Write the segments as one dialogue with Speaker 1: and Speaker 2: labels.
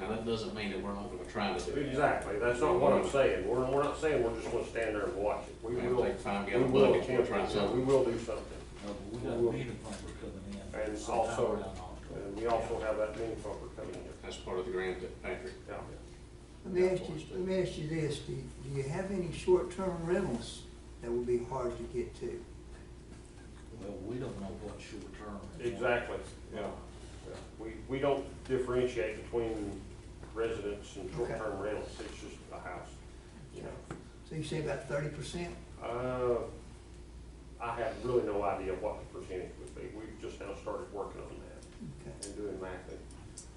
Speaker 1: Now, that doesn't mean that we're not gonna try to do it.
Speaker 2: Exactly, that's not what I'm saying, we're, we're not saying we're just gonna stand there and watch it, we
Speaker 1: We're
Speaker 2: will.
Speaker 1: gonna take time,
Speaker 2: we
Speaker 1: get a
Speaker 2: will
Speaker 1: bucket, we'll
Speaker 2: attempt
Speaker 1: try
Speaker 2: it.
Speaker 1: something.
Speaker 2: We will do something,
Speaker 3: No, but we got a meeting plumber coming in.
Speaker 2: And
Speaker 3: sometime
Speaker 2: also-
Speaker 3: around October.
Speaker 2: and we also have that mini bumper coming in,
Speaker 1: That's part of the grant that Patrick,
Speaker 2: yeah.
Speaker 4: Let me ask you, let me ask you this, do, do you have any short-term rentals that would be hard to get to?
Speaker 3: Well, we don't know what short term. is.
Speaker 2: Exactly, yeah. Yeah. We, we don't differentiate between residents and short-term rentals, it's just a house, you know.
Speaker 4: So you say about thirty percent?
Speaker 2: Uh, I have really no idea what the percentage would be, we've just now started working on that.
Speaker 4: Okay,
Speaker 2: and doing mapping.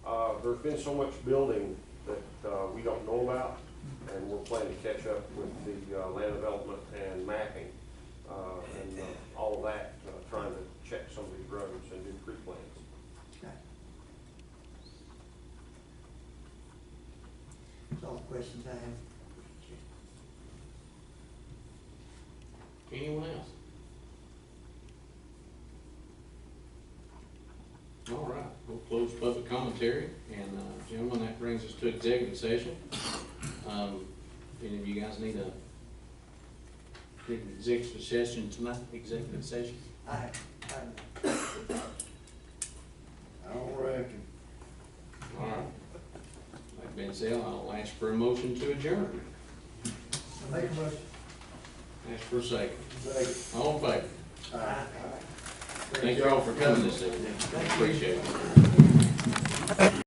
Speaker 2: Uh, there's been so much building that, uh, we don't know about, and we're planning to catch up with the, uh, land development and mapping, uh, and, uh, all of that, uh, trying to check some of these roads and do pre-plans.
Speaker 4: okay. That's all the questions I have.
Speaker 1: anyone else? All right, we'll close public commentary, and, uh, gentlemen, that brings us to executive session. Um, any of you guys need a, need an executive session tonight, executive session?
Speaker 4: I, I. I don't reckon.
Speaker 1: All right. Like Ben said, I'll ask for a motion to adjourn.
Speaker 4: I make a motion.
Speaker 1: Ask for a second. All in favor?
Speaker 4: Aye.
Speaker 1: Thank you all for coming this evening. Appreciate it.